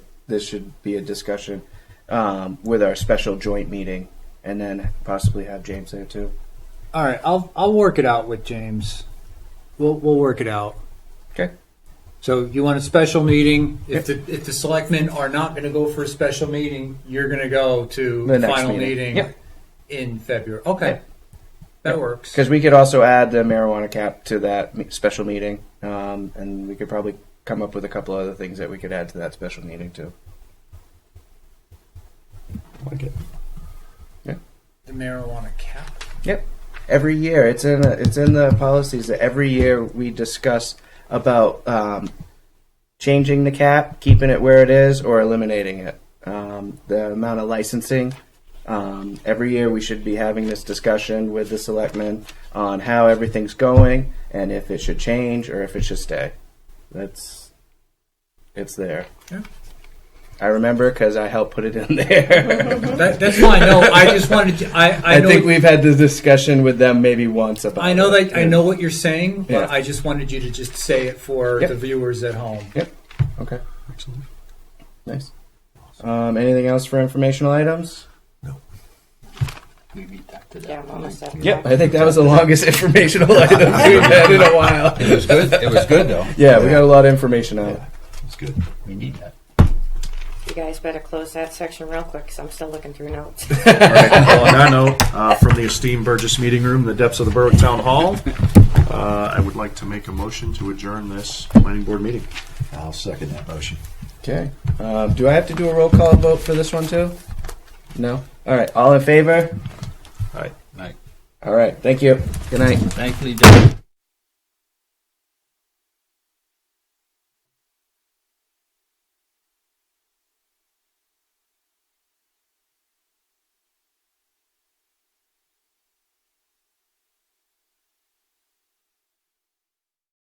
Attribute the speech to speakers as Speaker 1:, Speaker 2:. Speaker 1: this should be a discussion um, with our special joint meeting, and then possibly have James there too.
Speaker 2: All right, I'll I'll work it out with James. We'll we'll work it out.
Speaker 1: Okay.
Speaker 2: So you want a special meeting? If the if the selectmen are not going to go for a special meeting, you're going to go to
Speaker 1: The
Speaker 2: the
Speaker 1: next
Speaker 2: final
Speaker 1: meeting.
Speaker 2: meeting,
Speaker 1: Yeah.
Speaker 2: in February. Okay,
Speaker 1: Yeah.
Speaker 2: that works.
Speaker 1: Because we could also add the marijuana cap to that me- special meeting, um, and we could probably come up with a couple other things that we could add to that special meeting too.
Speaker 3: Like it.
Speaker 2: The marijuana cap.
Speaker 1: Yep. Every year, it's in it's in the policies that every year we discuss about um, changing the cap, keeping it where it is, or eliminating it. Um, the amount of licensing. Um, every year, we should be having this discussion with the selectmen on how everything's going and if it should change or if it should stay. That's it's there.
Speaker 2: Yeah.
Speaker 1: I remember because I helped put it in there.
Speaker 2: That, that's fine. No, I just wanted to. I I,
Speaker 1: I,
Speaker 2: know
Speaker 1: think we've had this discussion with them maybe once about.
Speaker 2: I know
Speaker 1: it.
Speaker 2: that I know what you're saying, but
Speaker 1: Yeah.
Speaker 2: I just wanted you to just say it for
Speaker 1: Yep.
Speaker 2: the viewers at home.
Speaker 1: Okay.
Speaker 3: Excellent.
Speaker 1: Nice. Um, anything else for informational items?
Speaker 4: We beat that to
Speaker 5: Yeah, I'm almost up.
Speaker 1: I think that was the longest informational item we've had in a while.
Speaker 4: It was good. It was good though.
Speaker 1: Yeah, we got a lot of information out.
Speaker 3: It's good.
Speaker 4: We need that.
Speaker 5: You guys better close that section real quick because I'm still looking through notes.
Speaker 6: All right. Well, on that note, uh, from the esteemed Burgess Meeting Room, the depths of the Berwick Town Hall, uh, I would like to make a motion to adjourn this planning board meeting.
Speaker 3: I'll second that motion.
Speaker 1: Okay. Um, do I have to do a roll call vote for this one too? No. All right. All in favor?
Speaker 6: All right.
Speaker 4: Right.
Speaker 1: All right. Thank you. Good night.
Speaker 4: Thankfully, Dave.